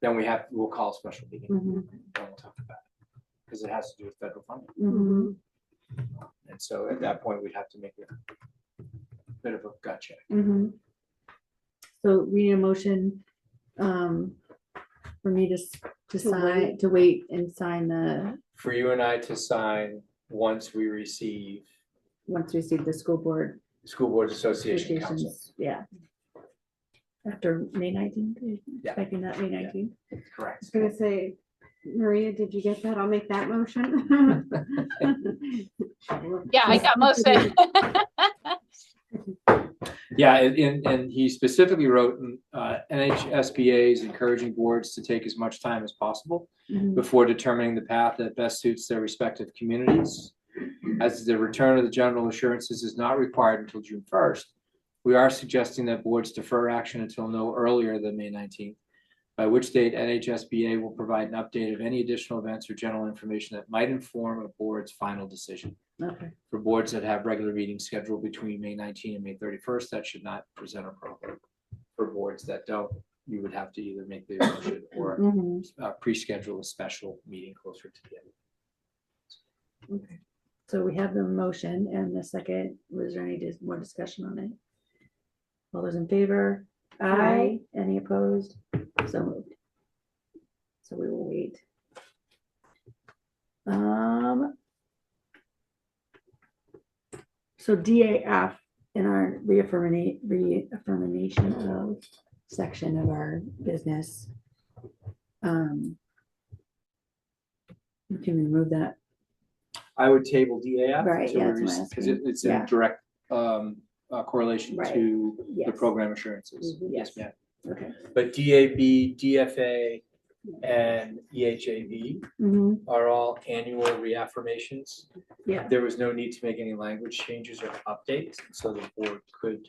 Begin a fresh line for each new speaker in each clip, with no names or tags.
then we have, we'll call a special meeting
Mhm,
and we'll talk about it. Because it has to do with federal funding.
Mm-hmm.
mhm,
And so at that point, we'd have to make a bit of a gut check.
Mm-hmm.
mhm. So we need a motion, um, for me to, s- to sign,
wait.
to wait and sign the,
For you and I to sign once we receive
once we see the school board
School Boards Association Council.
applications, yeah. After May nineteenth,
Yeah.
expecting that May nineteenth.
Correct.
I was gonna say, Maria, did you get that? I'll make that motion.
Yeah, I got most of it.
Yeah, and- and, and he specifically wrote, uh, NHSBA is encouraging boards to take as much time as possible
Mm-hmm,
before determining the path that best suits their respective communities. As the return of the general assurances is not required until June first, we are suggesting that boards defer action until no earlier than May nineteenth, by which date NHSBA will provide an update of any additional events or general information that might inform a board's final decision.
Okay,
For boards that have regular meetings scheduled between May nineteenth and May thirty-first, that should not present a problem. For boards that don't, you would have to either make the motion or
mhm,
uh, pre-schedule a special meeting closer to the end.
okay. So we have the motion and the second, was there any dis- more discussion on it? All those in favor? Aye. Any opposed? So moved. So we will wait. Um. So DAF in our reaffirmation, reaffirmation of section of our business. Um. You can remove that,
I would table DAF.
Right, yeah, that's what I was
Because it,
asking.
it's in
Yeah.
direct, um, uh, correlation
Right.
to
yes.
the program assurances.
Mhm. Yes.
ma'am.
Okay.
But DAB, DFA, and E EHAB
hmm
Mm-hmm,
are all annual reaffirmations.
Yeah.
There was no need to make any language changes or updates, so the board could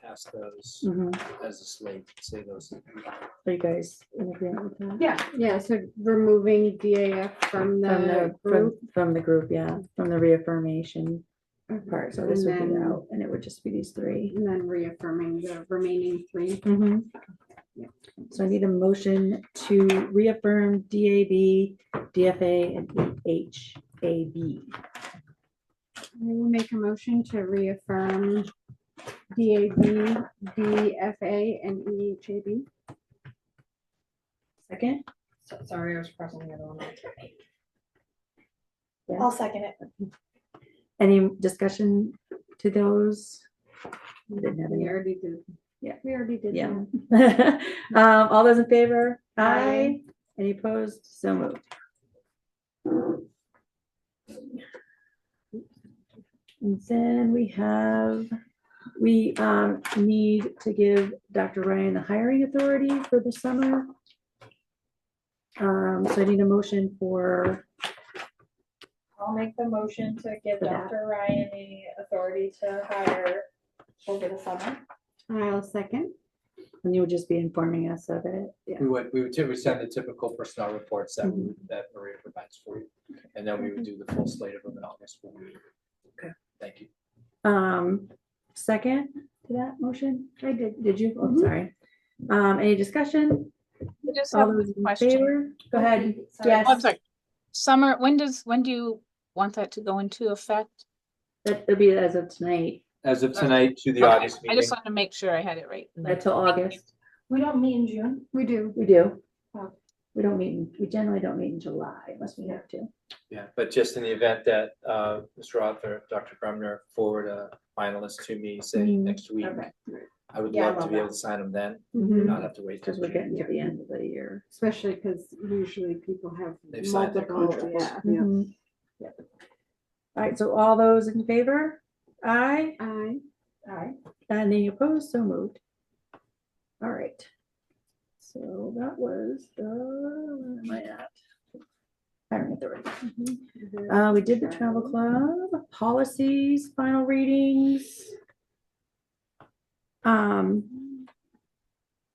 pass those
hmm
mm-hmm.
as a slate, say those.
Are you guys in agreement with that?
Yeah, yeah, so removing DAF from
From
the
the, from,
group.
from the group, yeah, from the reaffirmation part, so this would
And
be
then-
out, and it would just be these 3
And then reaffirming the remaining three.
Mhm. So I need a motion to reaffirm DAB, DFA, and HAB.
I will make a motion to reaffirm DAB, DFA, and E EHAB.
Second,
So- Sorry, I was pressing the other one. on.
Yeah.
I'll second it.
any discussion to those? I Didn't have
We
any.
already did.
Yeah.
We already did.
Yeah.
that.
Um, all those in favor?
Aye.
Any opposed? So moved. And then we have, we, um, need to give Dr. Ryan the hiring authority for the summer. Um, so I need a motion for,
I'll make the motion to give
For that.
Dr. Ryan the authority to hire over the summer.
I'll second.
and you would just be informing us of it.
We would, we would typically send the typical personnel reports that, we- that Maria provides for you. And then we would do the full slate of them in August. when we-
Okay.
Thank you.
Um, second to that motion? I did. Did you? Oh,
Mhm.
sorry. Um, any discussion?
I just have
All
one
those in
question.
favor? Go ahead.
Sorry.
Yes.
Oh, I'm sorry. Summer, when does, when do you want that to go into effect?
That'll be as of tonight,
As of tonight to the
Okay,
August
I
meeting.
just wanted to make sure I had it right.
until uh, August.
We don't meet in June.
We do.
We do.
Oh.
We don't meet, in- we generally don't meet in July unless we have to.
Yeah, but just in the event that uh, Mr. Author, Dr. Brumner forward a finalist to me, say
Mhm.
next week.
Okay.
I would
Yeah, I
love to
love
be able to sign them then,
Mhm.
not have to wait. till
Because we're
June.
getting to the end of the year.
Especially because usually people have
They've signed their
multiple, yeah.
contracts.
yeah.
Mhm. Yep. All right, so all those in favor? Aye,
I,
Alright.
and any opposed, so moved. All right. So that was the, where am I at? Hiring authority. Uh, we did the travel club, policies, final readings. Um,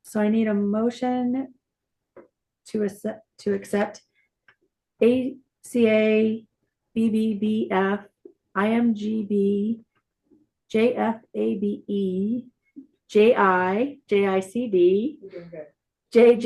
so I need a motion to accept, to accept ACA, BBBF, IMGB, JFABE, JI, JICD,
You're doing good.
JJ.